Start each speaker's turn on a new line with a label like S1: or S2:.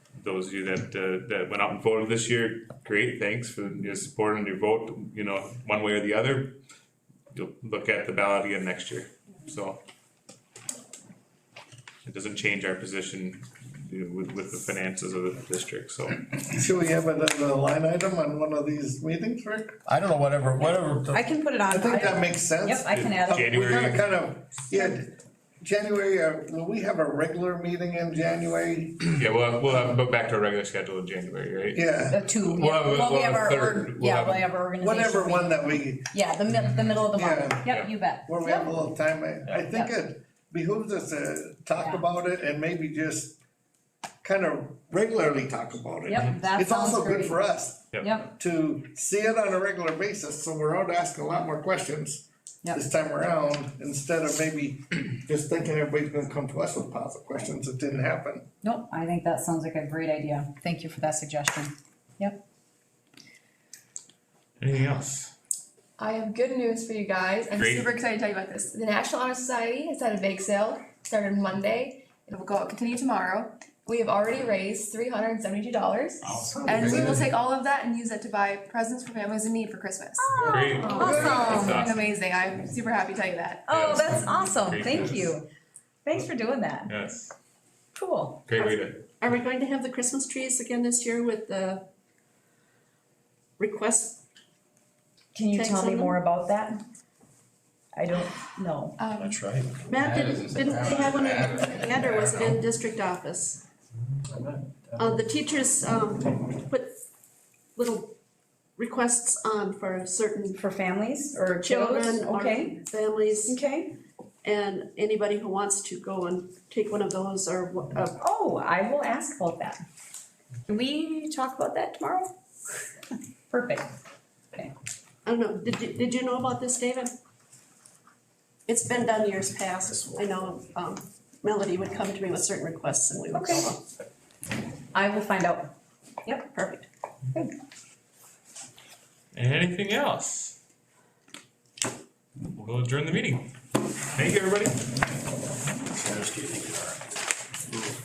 S1: those of you that, uh, that went out and voted this year, great, thanks for your support and your vote, you know, one way or the other. You'll look at the ballot again next year, so. It doesn't change our position you know, with, with the finances of the district, so.
S2: Should we have it as a line item on one of these meetings, Rick?
S3: I don't know, whatever, whatever.
S4: Uh, I can put it on.
S2: I think that makes sense.
S4: Yep, I can add
S2: Uh,
S4: it.
S2: We gotta
S1: January.
S2: kind of, yeah, January, uh, will we have a regular meeting in January?
S1: Yeah, we'll, we'll have, but back to our regular schedule in January, right?
S2: Yeah,
S4: The two,
S1: We'll have a-
S4: well, we
S1: we'll have
S4: have
S1: a
S4: our,
S1: third.
S4: org-
S1: We'll
S4: yeah,
S1: have
S4: we
S1: a-
S4: have our organization.
S2: whatever
S4: meeting.
S2: one that we,
S4: Yeah, the mid, the middle of the
S2: Yeah.
S4: month,
S1: Yeah.
S4: yep, you bet.
S2: where we have a little time, I, I think it behooves us to talk
S4: Yeah.
S2: about it and maybe just kind of regularly talk about it.
S4: Yep, that
S2: It's also
S4: sounds
S2: good
S4: great.
S2: for us
S4: Yep,
S2: to see it on a regular basis, so we're out asking a lot more questions
S4: Yep.
S2: this time around, instead of maybe just thinking everybody's gonna come to us with piles of questions that didn't happen.
S4: nope, I think that sounds like a great idea, thank you for that suggestion, yep.
S1: Anything else?
S5: I have good news for you guys. I'm
S1: Great.
S5: super excited to tell you about this. The National Honor Society has had a bake sale started Monday. It will go continue tomorrow. We have already raised three hundred and seventy-two dollars, and we will take all of that and use it to buy presents for families in need for Christmas.
S1: Great.
S4: Awesome.
S1: That's awesome.
S5: Amazing! I'm super happy to tell you that.
S4: Oh,
S1: Yes.
S4: that's awesome,
S1: Great
S4: thank
S1: news.
S4: you, thanks for doing that,
S1: Yes,
S4: cool.
S1: great way to,
S6: Are we going to have the Christmas trees again this year with the request?
S4: Can you
S6: Thanks,
S4: tell me
S6: Emma.
S4: more about that? I don't know,
S5: Um,
S3: right.
S6: Matt, didn't, didn't they have one in the ad or was it in district office? Uh, the teachers, um, put little requests on for certain
S4: for families or kiddos,
S6: children or
S4: okay,
S6: families
S4: okay,
S6: and anybody who wants to go and take one of those or, wha- uh,
S4: oh, I will ask about that. Can we talk about that tomorrow? Perfect.
S6: I don't know, did you, did you know about this, David? It's been done years past, I know, um, Melody would come to me with certain requests and we would go
S4: Okay.
S6: along.
S4: I will find out. Yep, perfect.
S1: anything else? We'll adjourn the meeting. Thank you, everybody.